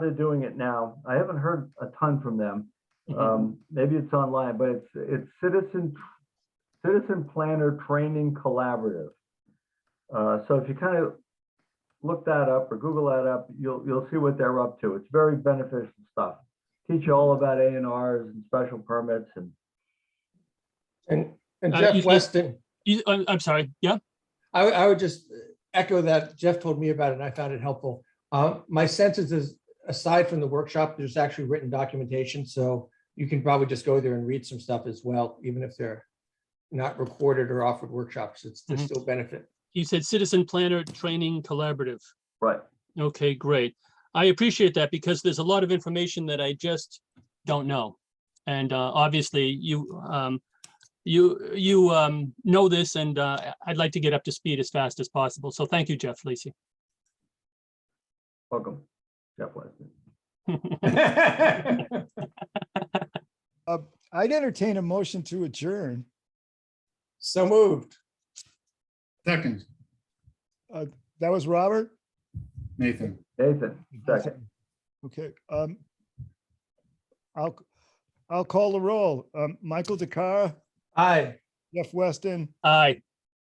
they're doing it now. I haven't heard a ton from them. Mm-hmm. Um, maybe it's online, but it's, it's Citizen, Citizen Planner Training Collaborative. Uh, so if you kind of look that up or Google that up, you'll, you'll see what they're up to. It's very beneficial stuff. Teach you all about A and Rs and special permits and And, and Uh, you Jeff said- Weston, You, I'm, I'm sorry. Yeah. I, would- I would just echo that Jeff told me about it and I found it helpful. Uh, my sense is, is aside from the workshop, there's actually written documentation, so you can probably just go there and read some stuff as well, even if they're not recorded or offered workshops, it's, there's Mhm. still benefit. You said Citizen Planner Training Collaborative. right. Okay, great. I appreciate that because there's a lot of information that I just don't know. And uh, obviously you, um, you, you um, know this and uh, I'd like to get up to speed as fast as possible. So thank you, Jeff Lacy. Welcome, Jeff Weston. I'd entertain a motion to adjourn. So moved. Second, That was Robert? Nathan. Nathan, second. Okay, um, I'll, I'll call the roll. Um, Michael DeCara, Aye. Jeff Weston, Aye,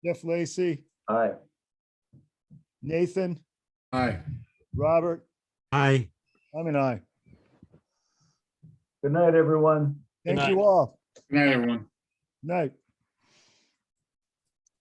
Jeff Lacy, Aye. Nathan, Aye. Robert, Aye. I'm an aye. Good night, everyone. Good Thank you night. all. Good night, everyone. Night.